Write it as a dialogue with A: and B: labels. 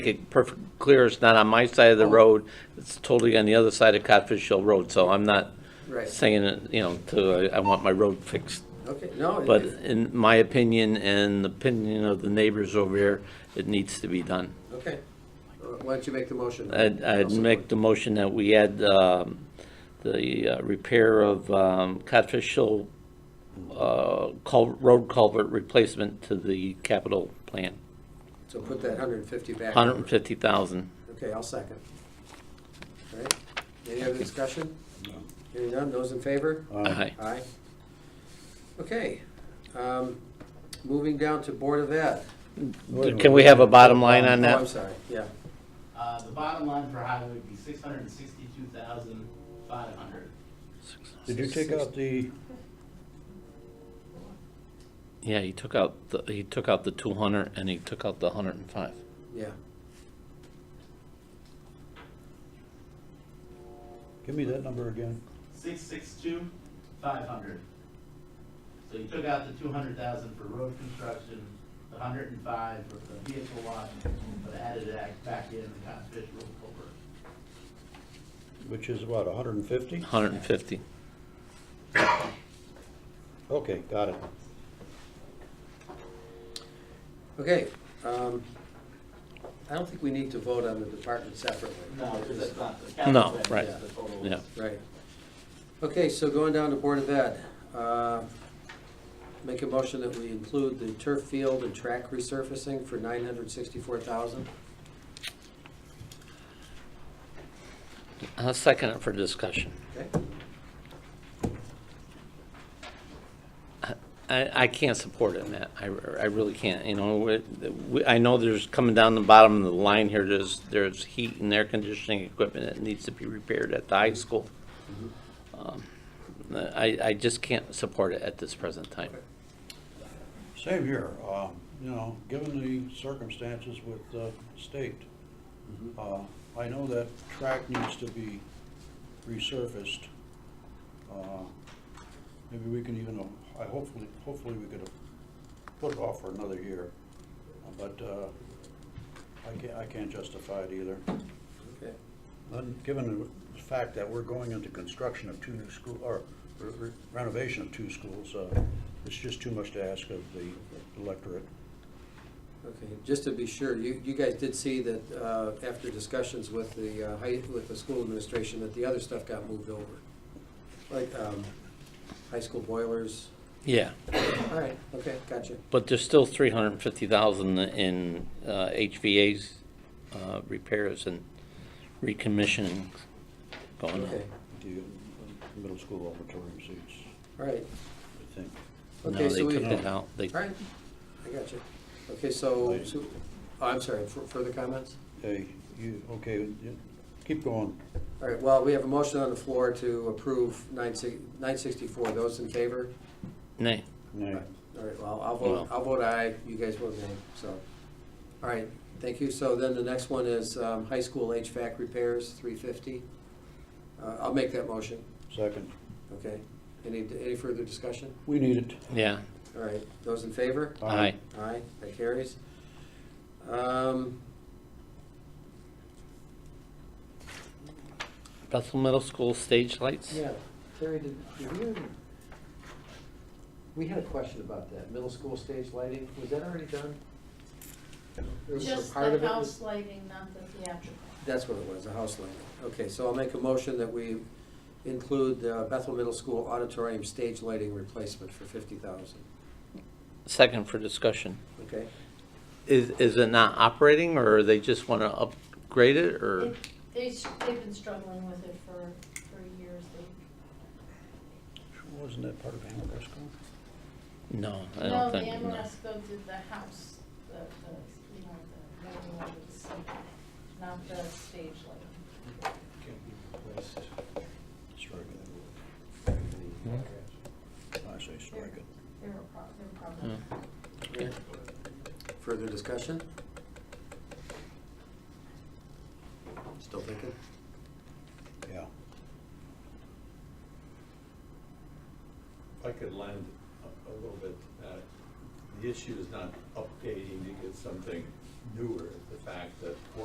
A: it perfectly clear, it's not on my side of
B: Oh.
A: the road, it's totally on the other side of Codfish Hill Road, so I'm not
B: Right.
A: saying, it, you know, to, uh, I I want my road fixed.
B: Okay, no. it-
A: But in my opinion and the opinion of the neighbors over here, it needs to be done.
B: Okay. Uh, Why don't you make the motion?
A: I'd, I'd
B: Councilman?
A: make the motion that we add, um, the uh, repair of, um, Codfish Hill, uh, cul, road culvert replacement to the capital plan,
B: So put that hundred and fifty back.
A: hundred and fifty thousand.
B: Okay, I'll second. All right, any other discussion? Hearing none, those in favor?
A: Aye.
B: Aye. Okay, um, moving down to Board of Ed.
A: Can we have a bottom line on
B: Oh, I'm
A: that?
B: sorry, yeah.
C: Uh, the bottom line for highway would be six hundred and sixty-two thousand, five hundred.
D: Did you take out the,
A: Yeah, he took out, the he took out the two hundred and he took out the hundred and five.
B: Yeah,
D: give me that number again.
C: Six six two, five hundred. So you took out the two hundred thousand for road construction, the hundred and five for the vehicle wash, but added that back in the conservation road culvert.
D: Which is what, hundred and fifty?
A: Hundred and fifty.
D: Okay, got it.
B: okay, um, I don't think we need to vote on the department separately.
C: No, because that's not the
A: No,
C: capital.
A: right,
C: that's the total.
A: yeah.
B: Right. Okay, so going down to Board of Ed, uh, make a motion that we include the turf field and track resurfacing for nine hundred sixty-four thousand.
A: I'll second it for discussion.
B: Okay,
A: I, I can't support it, Matt. I, I really can't, you know, we- we, I know there's coming down the bottom of the line here, there's, there's heat and air conditioning equipment that needs to be repaired at the high school.
C: Mm-hmm.
A: Um, I, I just can't support it at this present time.
D: Same here, um, you know, given the circumstances with the state, uh, I know that track needs to be resurfaced. Uh, Maybe we can even, I hopefully, hopefully we could put it off for another year, Uh, but, uh, I can't, I can't justify it either.
B: okay.
D: And Given the fact that we're going into construction of two new school, or re- renovation of two schools, uh, it's just too much to ask of the electorate.
B: Okay, just to be sure, you, you guys did see that, uh, after discussions with the, uh, high, with the school administration, that the other stuff got moved over. Like, um, high school boilers,
A: Yeah,
B: all right, okay, gotcha.
A: but there's still three hundred and fifty thousand in, uh, HVA's, uh, repairs and recommissioning going on.
B: Okay,
D: The middle school auditorium seats,
B: all right,
D: I think.
B: okay,
A: No, they
B: so we.
A: took it out. They,
B: All right, I got you. Okay, so,
D: Right.
B: so- oh, I'm sorry, fur- further comments?
D: Hey, you, okay, you- keep going.
B: All right, well, we have a motion on the floor to approve nine six- 964. Those in favor?
A: nay.
D: Nay.
B: All right, well, I'll vote, I'll vote aye, you guys vote nay, so. All right, thank you. So then the next one is um, high school HVAC repairs, 350. Uh, I'll make that motion,
D: Second,
B: okay? Any, any further discussion?
D: we need it.
A: Yeah,
B: All right, those in favor?
A: aye.
B: Aye, that carries. Um,
A: Bethel Middle School stage lights?
B: Yeah, Terry, did, did we, ever- we had a question about that, middle school stage lighting, was that already done? There was a
E: Just
B: part
E: the
B: of it was-
E: house lighting, not the theatrical.
B: That's what it was, the house lighting. Okay, so I'll make a motion that we include uh, Bethel Middle School auditorium stage lighting replacement for fifty thousand,
A: Second for discussion.
B: okay?
A: Is, is it not operating, or they just want to upgrade it, or?
E: It- They, s- they've been struggling with it for, for years. They-
D: Wasn't that part of Amoresco?
A: No, I don't think.
E: No, the
A: no.
E: Amoresco did the house, the, the, you know, the, living lights, not the stage lighting.
D: Strike it. I say strike it.
E: They're a prob, they're a
A: Yeah.
E: problem.
A: Okay.
B: Further discussion? Still thinking?
D: Yeah.
F: If I could lend a a little bit, uh, the issue is not updating to get something newer, the fact that